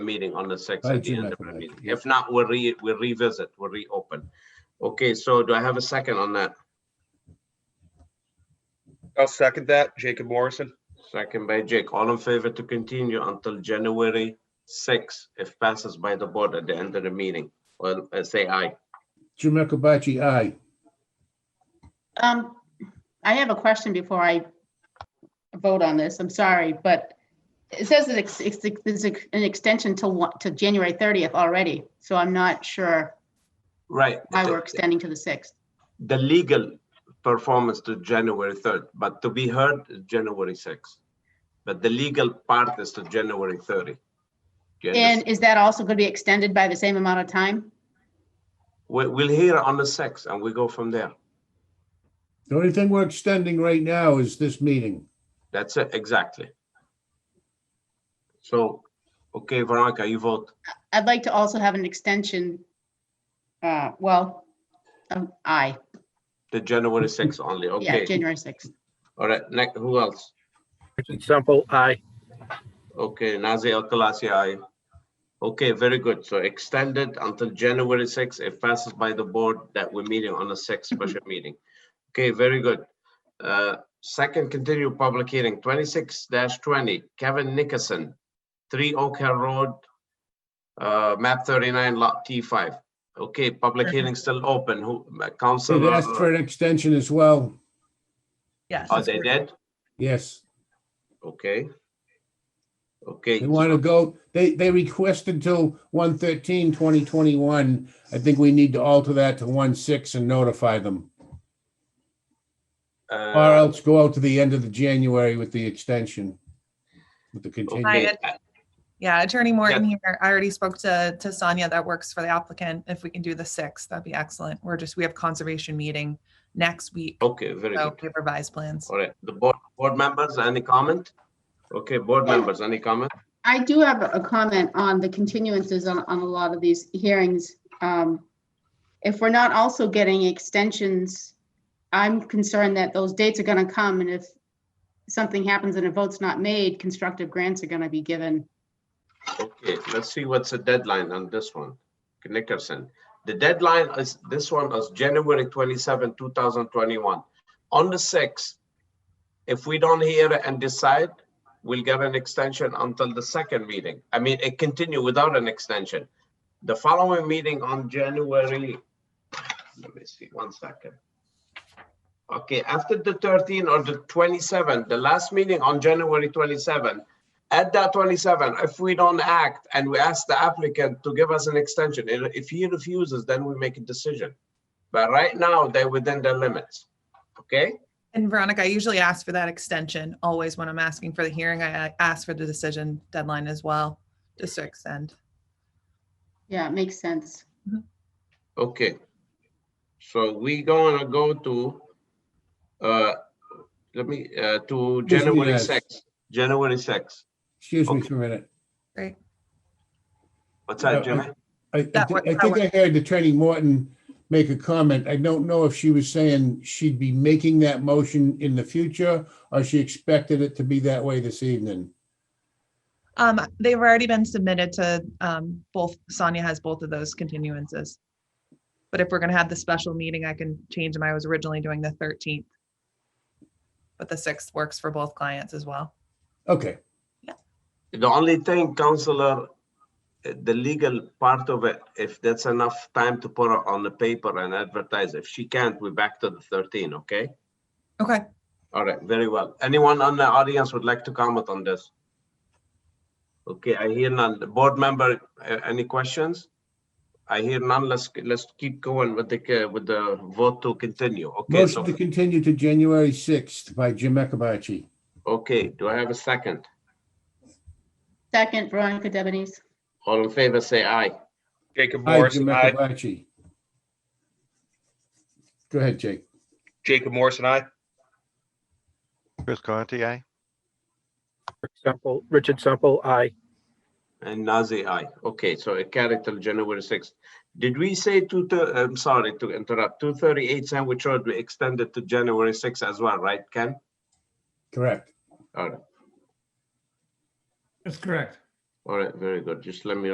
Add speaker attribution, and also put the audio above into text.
Speaker 1: meeting on the sixth,
Speaker 2: By
Speaker 1: at the
Speaker 2: June,
Speaker 1: end
Speaker 2: I
Speaker 1: of the
Speaker 2: think,
Speaker 1: meeting.
Speaker 2: yes.
Speaker 1: If not, we'll re, we'll revisit, we'll reopen. Okay, so do I have a second on that?
Speaker 3: I'll second that. Jacob Morrison.
Speaker 1: Second by Jake. All in favor to continue until January sixth, if passes by the board at the end of the meeting. Well, uh, say aye.
Speaker 2: Jim Akabachi, aye.
Speaker 4: Um, I have a question before I vote on this. I'm sorry, but it says that it's, it's, it's an extension to what, to January thirtieth already, so I'm not sure
Speaker 1: Right.
Speaker 4: why we're extending to the sixth.
Speaker 1: The legal performance to January third, but to be heard, is January sixth. But the legal part is to January thirty. Do you
Speaker 4: And
Speaker 1: understand?
Speaker 4: is that also going to be extended by the same amount of time?
Speaker 1: We, we'll hear on the sixth and we go from there.
Speaker 2: The only thing we're extending right now is this meeting.
Speaker 1: That's it, exactly. So, okay, Veronica, you vote.
Speaker 4: I'd like to also have an extension. Uh, well, um, aye,
Speaker 1: The January sixth only,
Speaker 4: yeah,
Speaker 1: okay.
Speaker 4: January sixth.
Speaker 1: All right, next, who else?
Speaker 5: Sample, aye.
Speaker 1: Okay, Nazir Al Khelaifi, aye. Okay, very good. So extended until January sixth. It passes by the board that we're meeting on the sixth special meeting. Okay, very good. Uh, Second continued public hearing, twenty-six twenty, Kevin Nickerson, three Oak Hill Road, uh, map thirty-nine, lot T five. Okay, public hearing still open. Who, uh,
Speaker 2: They've
Speaker 1: council?
Speaker 2: asked for an extension as well.
Speaker 6: Yes.
Speaker 1: Are they dead?
Speaker 2: Yes,
Speaker 1: Okay. Okay.
Speaker 2: they want to go, they, they requested till 1 2021. I think we need to alter that to 1/6 and notify them.
Speaker 1: uh,
Speaker 2: Or else go out to the end of the January with the extension. With the
Speaker 6: Hi,
Speaker 2: continuation.
Speaker 1: Okay, uh,
Speaker 6: Ed. Yeah, Attorney Morton here. I already spoke to, to Sonia. That works for the applicant. If we can do the sixth, that'd be excellent. We're just, we have conservation meeting next week.
Speaker 1: Okay, very
Speaker 6: So
Speaker 1: good.
Speaker 6: we have revised plans.
Speaker 1: All right, the board, board members, any comment? Okay, board members, any comment?
Speaker 4: I do have a comment on the continuances on, on a lot of these hearings. Um, If we're not also getting extensions, I'm concerned that those dates are gonna come and if something happens and a vote's not made, constructive grants are gonna be given.
Speaker 1: Okay, let's see what's the deadline on this one. Nickerson, the deadline is, this one is January twenty-seven, two thousand twenty-one. On the sixth, if we don't hear and decide, we'll get an extension until the second meeting. I mean, it continue without an extension. The following meeting on January, let me see, one second. Okay, after the 13 or the 27, the last meeting on January 27, at that 27, if we don't act and we ask the applicant to give us an extension, and if he refuses, then we make a decision. But right now, they're within their limits, okay?
Speaker 6: And Veronica, I usually ask for that extension. Always when I'm asking for the hearing, I I ask for the decision deadline as well, just to extend.
Speaker 4: Yeah, it makes sense.
Speaker 1: Okay. So we gonna go to, uh, let me, uh, to
Speaker 2: Yes,
Speaker 1: January
Speaker 2: yes.
Speaker 1: 6th, January 6th.
Speaker 2: Excuse me
Speaker 1: Okay.
Speaker 2: for a minute.
Speaker 6: Great.
Speaker 1: What's
Speaker 2: Yeah,
Speaker 1: that,
Speaker 2: I-
Speaker 1: Jimmy?
Speaker 2: I, I thi-
Speaker 6: That work-
Speaker 2: I
Speaker 6: that
Speaker 2: think I heard Attorney Morton make a comment. I don't know if she was saying she'd be making that motion in the future or she expected it to be that way this evening.
Speaker 6: Um, they've already been submitted to, um, both, Sonia has both of those continuances. But if we're gonna have the special meeting, I can change them. I was originally doing the thirteenth. But the sixth works for both clients as well.
Speaker 2: Okay,
Speaker 1: The only thing, counselor, uh, the legal part of it, if that's enough time to put it on the paper and advertise, if she can't, we're back to the 13, okay?
Speaker 6: Okay,
Speaker 1: All right, very well. Anyone on the audience would like to comment on this? Okay, I hear none. The board member, a- any questions? I hear none. Let's, let's keep going with the, with the vote to continue. Okay,
Speaker 2: motion
Speaker 1: so,
Speaker 2: to continue to January 6th by Jim Akabachi.
Speaker 1: okay, do I have a second?
Speaker 4: Second, Veronica Debonese.
Speaker 1: All in favor, say aye.
Speaker 3: Jacob
Speaker 2: Hi, Jim
Speaker 3: Morrison. Aye.
Speaker 2: Akabachi. Go ahead, Jake.
Speaker 3: Jacob Morrison. Aye.
Speaker 7: Chris Conti, aye.
Speaker 5: Sample, Richard Sample, aye.
Speaker 1: And Nazir, aye. Okay, so it carried till January sixth. Did we say two, thir- I'm sorry to interrupt, two thirty-eight Sandwich Road, we extended to January sixth as well, right, Ken?
Speaker 2: Correct.
Speaker 1: All right,
Speaker 8: That's correct.
Speaker 1: All right, very good. Just let me